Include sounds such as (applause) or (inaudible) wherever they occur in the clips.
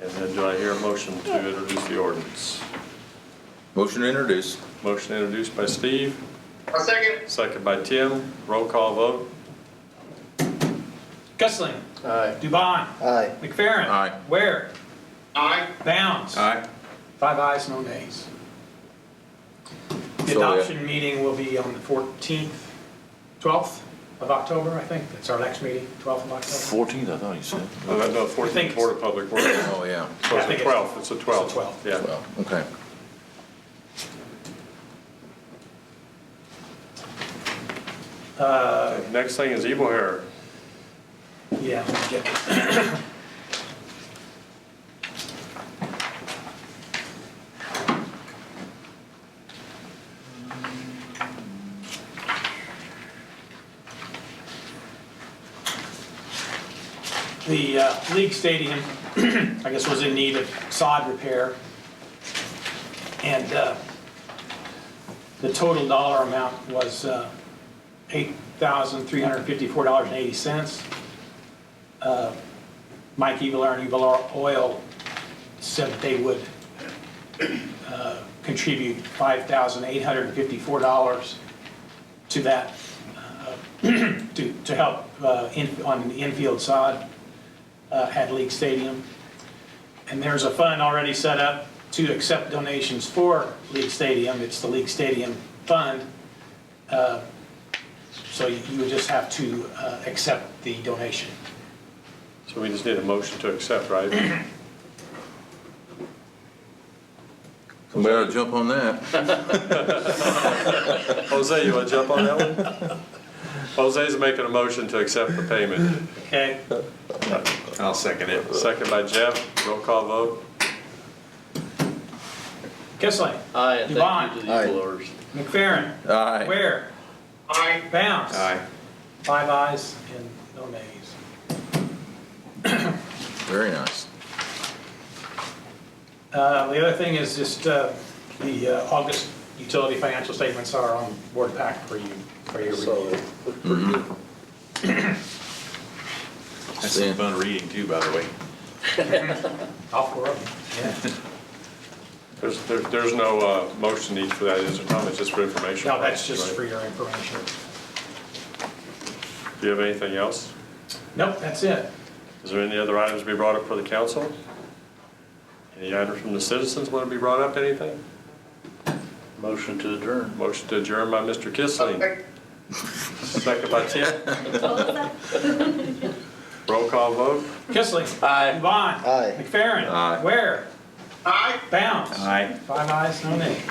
And do I hear a motion to introduce the ordinance? Motion to introduce. Motion introduced by Steve, A second. second by Tim. Roll call vote. Gusling. Aye. Dubon. Aye. McFerrin. Aye. Ware. Aye. Bounds. Aye. Five ayes, no nays. The So, yeah. adoption meeting will be on the 14th, 12th of October, I think. That's our next meeting, 12th of October. Fourteenth, I thought you said. Oh, that- No, I think 14th it's- Board of Public Works. So Oh, yeah. Yeah, I it's think the it's- 12th, it's the 12th. 12th. Yeah. Well, okay. Uh, Next thing is Evil Hair. Yeah. let me get this. The uh, league stadium, (clears throat) I guess, was in need of sod repair. And uh, the total dollar amount was uh, $8,354.80. Mike Evilar and Evilar Oil said that they would uh, contribute $5,854 to that, uh, (clears throat) to, to help uh, in- on the infield sod uh, at League Stadium. And there's a fund already set up to accept donations for League Stadium. It's the League Stadium Fund. Uh, So you you would just have to uh, accept the donation. So we just need a motion to accept, right? (coughs) Somebody ought to jump on that. Jose, you want to jump on that one? Jose's making a motion to accept the payment. Okay? I'll second it. Second by Jeff. Roll call vote. Kissling. Aye, and thank you to the Aye. evildoers. McFerrin. Aye. Ware. Aye. Bounce. Aye. Five ayes and no nays. Very nice. Uh, The other thing is just uh, the uh, August utility financial statements are on board pack for you, for your review. That's some fun reading too, by the way. All four of them. There's, there- there's no uh, motion need for that, is there, Tom? It's just for information. No, that's just Right? for your information. Do you have anything else? Nope, that's it. Is there any other items to be brought up for the council? Any items from the citizens want to be brought up, anything? Motion to adjourn. Motion to adjourn by Mr. Kissling, Second. second by Tim. Roll call vote. Kissling. Aye. Devon. Aye. McFerrin. Aye. Ware. Aye. Bounce. Aye. Five ayes, no nays.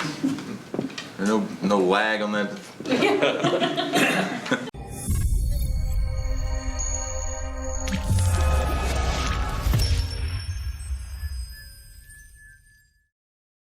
No, no lag on that.